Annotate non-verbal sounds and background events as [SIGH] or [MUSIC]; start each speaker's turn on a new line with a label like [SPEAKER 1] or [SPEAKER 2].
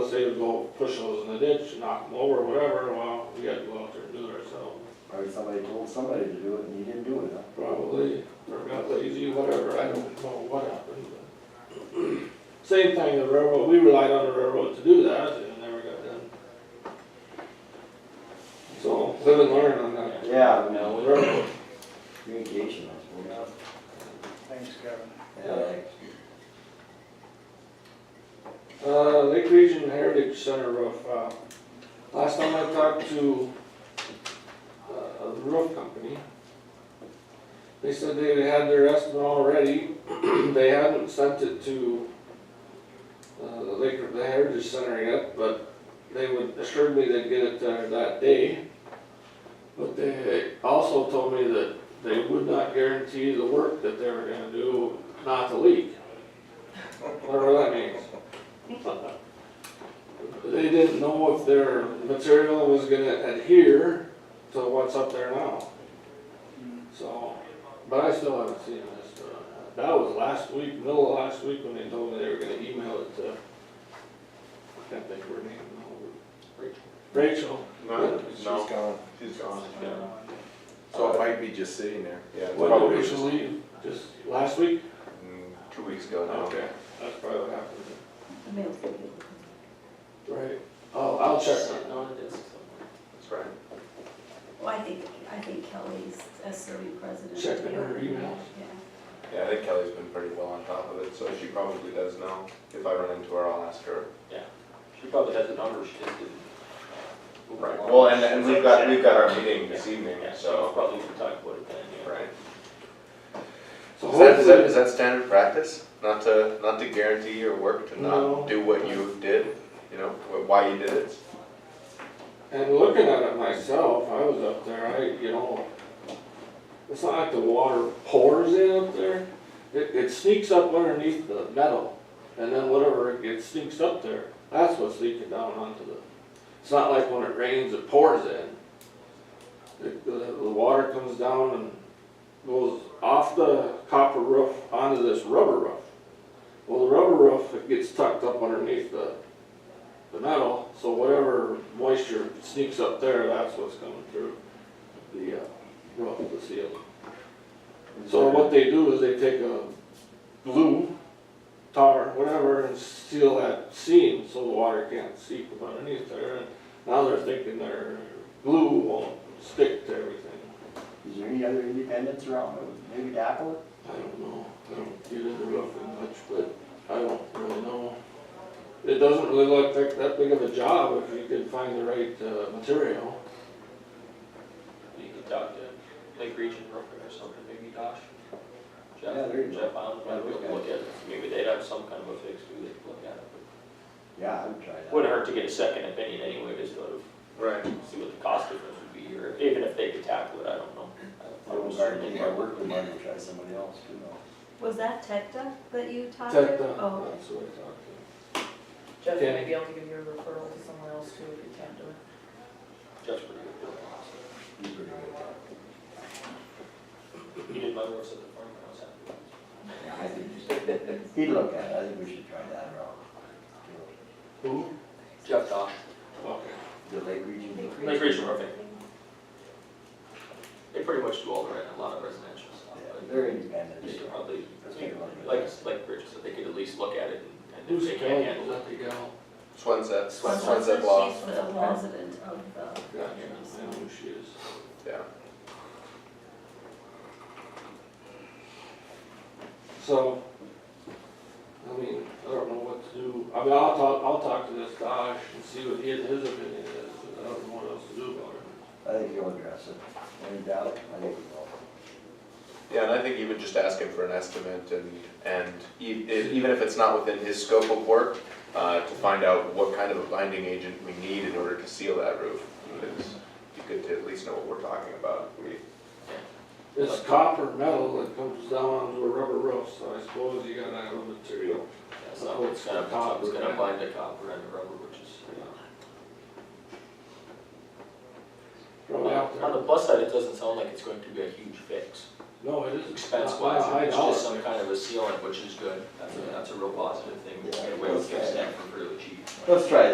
[SPEAKER 1] say to go push those in the ditch, knock them over, whatever, well, we gotta go out there and do it ourselves.
[SPEAKER 2] Or somebody told somebody to do it and you didn't do it, huh?
[SPEAKER 1] Probably, or got lazy, whatever, I don't know what happened, but. [CLEARS THROAT] Same thing, the railroad, we relied on the railroad to do that, and it never got done. So, live and learn on that.
[SPEAKER 2] Yeah,
[SPEAKER 1] Now,
[SPEAKER 2] no,
[SPEAKER 1] the railroad,
[SPEAKER 2] communication, I suppose.
[SPEAKER 3] Thanks, Kevin.
[SPEAKER 2] Yeah.
[SPEAKER 1] Uh, Lake Region Heritage Center roof, uh, last time I talked to, uh, the roof company, they said they had their estimate already, [CLEARS THROAT] they hadn't sent it to, uh, the Lake, the Heritage Center yet, but they would, assured me they'd get it there that day. But they also told me that they would not guarantee the work that they were gonna do not to leak. Whatever that means. They didn't know if their material was gonna adhere to what's up there now. So, but I still haven't seen this, uh, that was last week, middle of last week when they told me they were gonna email it to, I can't think of her name now. Rachel.
[SPEAKER 4] No,
[SPEAKER 5] She's
[SPEAKER 4] no,
[SPEAKER 5] gone.
[SPEAKER 4] she's gone, yeah.
[SPEAKER 5] So it might be just sitting there.
[SPEAKER 4] Yeah, it's
[SPEAKER 1] When did
[SPEAKER 4] probably just,
[SPEAKER 1] Rachel leave? Just last week?
[SPEAKER 4] mm, two weeks ago now.
[SPEAKER 1] That's probably what happened.
[SPEAKER 6] The mail's gonna be.
[SPEAKER 1] Right. Oh, I'll check on it.
[SPEAKER 7] Sitting on a disc somewhere.
[SPEAKER 4] That's right.
[SPEAKER 6] Well, I think, I think Kelly's a serving president.
[SPEAKER 1] Checking her emails.
[SPEAKER 6] Yeah.
[SPEAKER 4] Yeah, I think Kelly's been pretty well on top of it, so she probably does know. If I run into her, I'll ask her.
[SPEAKER 7] She probably has the number, she just didn't. move
[SPEAKER 4] Right,
[SPEAKER 7] along.
[SPEAKER 4] well, and, and we've got, we've got our meeting this
[SPEAKER 7] Yeah.
[SPEAKER 4] evening,
[SPEAKER 7] Yeah, so
[SPEAKER 4] so,
[SPEAKER 7] probably we can talk about it then, yeah.
[SPEAKER 4] right.
[SPEAKER 1] So
[SPEAKER 5] Is that, is that,
[SPEAKER 1] hopefully,
[SPEAKER 5] is that standard practice? Not to, not to guarantee your work, to
[SPEAKER 1] No.
[SPEAKER 5] not do what you did, you know, wh- why you did it?
[SPEAKER 1] and looking at it myself, I was up there, I, you know, it's not like the water pours in up there. It, it sneaks up underneath the metal and then whatever, it- it sneaks up there. That's what's leaking down onto the, it's not like when it rains, it pours in. It- The, the water comes down and goes off the copper roof onto this rubber roof. Well, the rubber roof, it gets tucked up underneath the, the metal, so whatever moisture sneaks up there, that's what's coming through the, uh, roof, the seal. So what they do is they take a glue, tar, whatever, and seal that seam so the water can't seep from underneath there. And Now they're thinking their glue won't stick to everything.
[SPEAKER 2] Is there any other independents around? Maybe Dapple?
[SPEAKER 1] I don't know, I don't get into roofing much, but I don't really know. It doesn't really look like that big of a job if you can find the right, uh, material.
[SPEAKER 7] You could talk to Lake Region Roofing or something, maybe Josh. Jeff,
[SPEAKER 2] Yeah, there you go.
[SPEAKER 7] Jeff, I don't
[SPEAKER 2] Yeah,
[SPEAKER 7] know,
[SPEAKER 2] those
[SPEAKER 7] look
[SPEAKER 2] guys.
[SPEAKER 7] at it, maybe they'd have some kind of a fix, too. they could look at it.
[SPEAKER 2] Yeah, I would try
[SPEAKER 7] But
[SPEAKER 2] that.
[SPEAKER 7] Wouldn't hurt to get a second opinion anyway, just sort of
[SPEAKER 4] Right.
[SPEAKER 7] see what the cost difference would be, or even if they could tackle it, I don't know.
[SPEAKER 2] I would start getting our work with mine and try somebody else, you know.
[SPEAKER 6] Was that Tecta that you talked to?
[SPEAKER 1] Tech, uh,
[SPEAKER 6] Oh,
[SPEAKER 1] that's what I talked to.
[SPEAKER 8] Jeff,
[SPEAKER 1] Yeah.
[SPEAKER 8] maybe I'll give you a referral to someone else too if you can't do it.
[SPEAKER 7] Jeff's pretty good.
[SPEAKER 2] He's pretty good at
[SPEAKER 7] He did my work at the farm, when I was happy.
[SPEAKER 2] that. Yeah, I think we should- [LAUGHS] He'd look at it. I think we should try that around.
[SPEAKER 1] Who?
[SPEAKER 7] Jeff Dosh.
[SPEAKER 1] Okay.
[SPEAKER 2] The Lake Region.
[SPEAKER 7] Lake Region Roofing. They pretty much do all the, re- a lot of residential
[SPEAKER 2] Yeah,
[SPEAKER 7] stuff, but
[SPEAKER 2] they're
[SPEAKER 7] they
[SPEAKER 2] independent.
[SPEAKER 7] could probably,
[SPEAKER 2] Let's take a look at
[SPEAKER 7] like,
[SPEAKER 2] that.
[SPEAKER 7] like Bridge said, they could at least look at it and- and if
[SPEAKER 1] Who's
[SPEAKER 7] they
[SPEAKER 1] the
[SPEAKER 7] can't
[SPEAKER 1] gal? Is
[SPEAKER 7] handle
[SPEAKER 1] that
[SPEAKER 7] it.
[SPEAKER 1] the gal?
[SPEAKER 5] Swansett,
[SPEAKER 6] Swanson,
[SPEAKER 5] Swansett Law,
[SPEAKER 6] she's the resident of the.
[SPEAKER 1] Gotcha, I know who she is.
[SPEAKER 5] yeah.
[SPEAKER 1] So, I mean, I don't know what to do. I mean, I'll talk, I'll talk to this Dosh and see what his, his opinion is, but I don't know what else to do about it.
[SPEAKER 2] I think he'll address it. Any doubt? I think he will.
[SPEAKER 5] Yeah, and I think even just asking for an estimate and, and e- e- even if it's not within his scope of work, uh, to find out what kind of a binding agent we need in order to seal that roof. It's be good to at least know what we're talking about. We-
[SPEAKER 1] It's copper metal that comes down onto a rubber roof, so I suppose you gotta have a material.
[SPEAKER 7] Yeah, So it's gonna, it's gonna bind the copper and the rubber, which is, you know.
[SPEAKER 1] Probably out
[SPEAKER 7] On the
[SPEAKER 1] there.
[SPEAKER 7] plus side, it doesn't sound like it's going to be a huge fix,
[SPEAKER 1] No, it isn't.
[SPEAKER 7] expense
[SPEAKER 1] Not by a high
[SPEAKER 7] wise, it's
[SPEAKER 1] dollar
[SPEAKER 7] just some
[SPEAKER 1] figure.
[SPEAKER 7] kind of a sealant, which is good. That's a, that's a real positive thing, we can get away with fixing that for really cheap.
[SPEAKER 2] Let's try